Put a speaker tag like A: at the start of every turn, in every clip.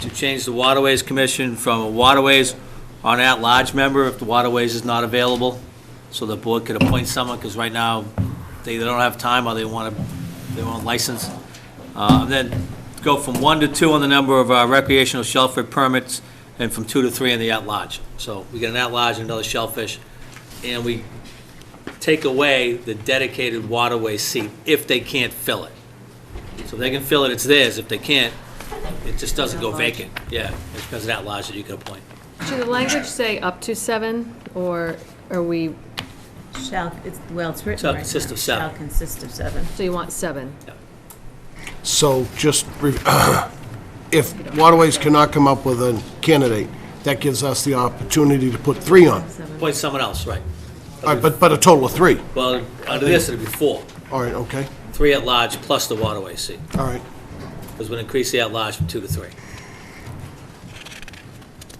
A: to change the Waterways Commission from a Waterways on at-large member if the Waterways is not available, so the board could appoint someone, because right now, they either don't have time or they want to, they want a license. Uh, Then go from one to two on the number of uh, recreational shellfish permits, and from two to three on the at-large. So we get an at-large and another shellfish, and we take away the dedicated waterway seat if they can't fill it. So if they can fill it, it's theirs. If they can't, it just doesn't go vacant. Yeah, it's because of that lodge that you can appoint.
B: Should the language say up to seven, or are we,
C: Shall, it's, well, it's written
A: Shall
C: right now.
A: consist of seven.
C: Shall consist of seven.
B: so you want seven?
D: So just, re- if Waterways cannot come up with a candidate, that gives us the opportunity to put three on.
A: Appoint someone else, right.
D: All right, but, but a total of three.
A: Well, under this, it'd be four.
D: All right, okay,
A: Three at large plus the waterway seat,
D: all right.
A: because we'll increase the at large from two to three.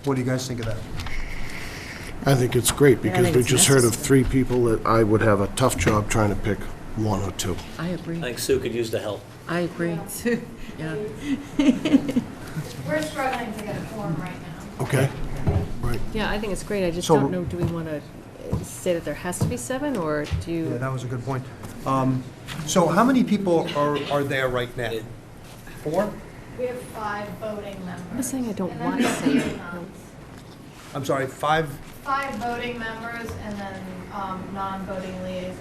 E: What do you guys think of that?
D: I think it's great, because
C: think
D: we
C: it's
D: just heard of three people that I would have a tough job trying to pick one or two.
F: I
A: I
F: agree,
A: think Sue could use the help.
F: I agree. Yeah,
G: We're struggling to get a form right now.
D: Okay? Right.
B: Yeah, I think it's great, I just
E: So-
B: don't know, do we want to say that there has to be seven, or do
E: Yeah,
B: you,
E: that was a good point. Um, So how many people are, are there right now? Four?
G: We have five voting members.
B: I'm not saying I don't
G: And then
B: want
G: there's
B: seven.
G: liaisons.
E: I'm sorry, five
G: Five voting members and then um, non-voting liaisons.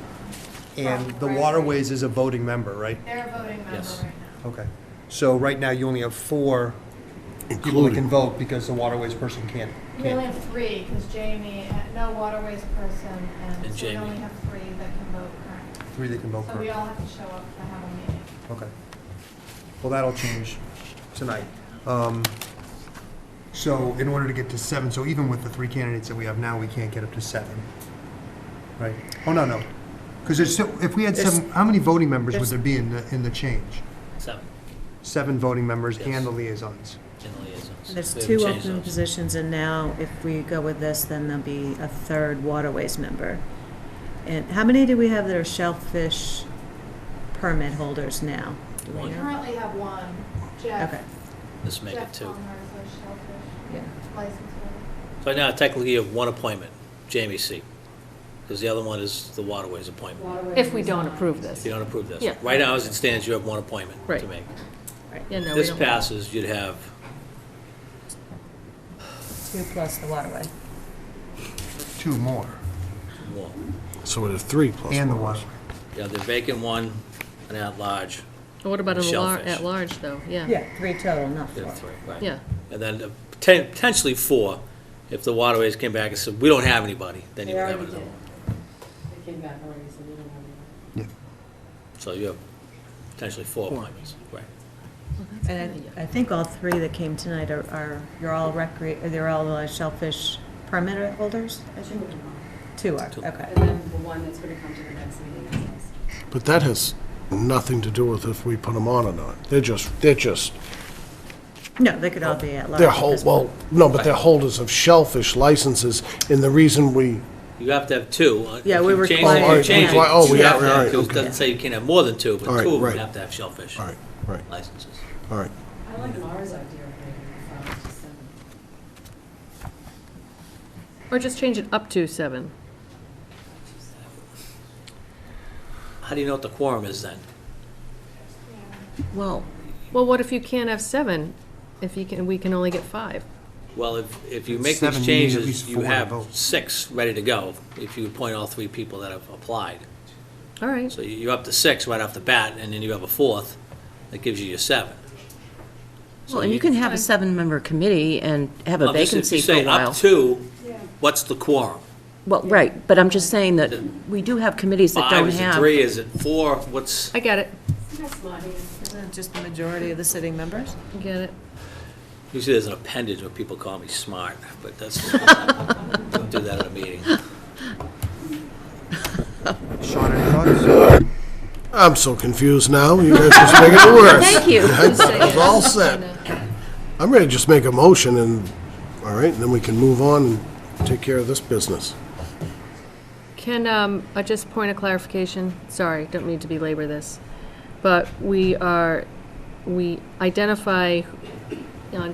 E: and the
G: Right.
E: Waterways is a voting member, right?
G: They're a voting member
A: Yes.
G: right now.
E: Okay. So right now you only have four people that can
D: Including,
E: vote because the Waterways person can't.
G: We only
E: can't.
G: have three, because Jamie, uh, no waterways person,
A: And
G: and so we
A: Jamie.
G: only have three that can vote currently.
E: Three that can vote
G: So we
E: for.
G: all have to show up to have a meeting.
E: Okay. Well, that'll change tonight. Um, So in order to get to seven, so even with the three candidates that we have now, we can't get up to seven. Right? Oh, no, no. Because there's, still- if we had seven, how many voting members would there be in the, in the change?
A: Seven,
E: Seven voting members
A: Yes.
E: and the liaisons.
A: in the liaisons.
C: There's
A: We haven't
C: two
A: changed
C: open
A: those.
C: positions, and now if we go with this, then there'll be a third waterways member. And how many do we have that are shellfish permit holders now? Do we
A: One.
G: We
C: know?
G: currently have one, Jeff.
C: Okay,
A: Let's make it
G: Jeff
A: two.
G: Palmer is a shellfish
C: yeah.
G: license
A: So
G: holder.
A: now technically you have one appointment, Jamie's seat, because the other one is the waterways appointment.
B: if we don't approve
A: If
B: this?
A: you don't approve this.
B: Yeah.
A: Right now, as it stands, you have one appointment to
B: Right.
A: make.
B: Yeah, no, we
A: This
B: don't.
A: passes, you'd have
C: Two plus the waterway.
E: Two more.
A: one.
D: so it is three plus
E: And the
D: one.
E: one.
A: Yeah, the vacant one, an at-large,
B: What about an alar-
A: Shellfish.
B: at large, though? Yeah,
C: Yeah, three total, not
A: you
C: four.
A: have three, right?
B: yeah,
A: And then uh, poten- potentially four, if the waterways came back and said, we don't have anybody, then you would have another one.
E: Yeah.
A: So you have potentially four appointments, right?
C: And I I think all three that came tonight are, are, you're all recre, they're all uh, shellfish permit holders? Two are, okay.
H: And then the one that's gonna come to the next meeting is us.
D: But that has nothing to do with if we put them on or not. They're just, they're just,
C: No, they could all be at large.
D: they're
C: at
D: whole,
C: this
D: well,
C: point.
D: no, but they're holders of shellfish licenses, and the reason we
A: You have to have two. Uh,
C: Yeah,
A: if
C: we
A: you change it,
C: require-
A: you
C: Oh, all right,
A: change it.
D: require- oh, we
A: You
D: have-
A: have to have
D: all right,
A: two. It
D: okay.
A: Doesn't say you can't have more than two,
D: All
A: but
D: right,
A: two of them
D: right.
A: have to have shellfish
D: All right, right.
A: licenses.
D: All right.
H: I like Laura's idea of bringing the five to seven.
B: or just change it up to seven.
A: How do you know what the quorum is then?
F: well,
B: Well, what if you can't have seven, if you can, we can only get five?
A: Well, if, if you
E: It's
A: make
E: seven,
A: these
E: you need at
A: changes,
E: least
A: you
E: four to
A: have
E: vote.
A: six ready to go, if you appoint all three people that have applied.
B: All right,
A: So you- you're up to six right off the bat, and then you have a fourth, that gives you your seven. So
F: well, and you can have a seven-member committee and have a
A: Obviously, if
F: vacancy for a
A: You
F: while.
A: say up to, what's the quorum?
F: Well, right, but I'm just saying that we do have committees that
A: Five,
F: don't
A: is it
F: have.
A: three, is it four, what's,
B: I get it,
C: Isn't it just the majority of the sitting members?
B: I get it.
A: usually there's an appendage where people call me smart, but that's, don't do that at a meeting.
E: Sean, any thoughts?
D: I'm so confused now. You guys just making it worse.
F: Thank you.
D: It's all set. I'm ready to just make a motion and, all right, and then we can move on and take care of this business.
B: Can, um, I just point of clarification, sorry, don't mean to belabor this, but we are, we identify on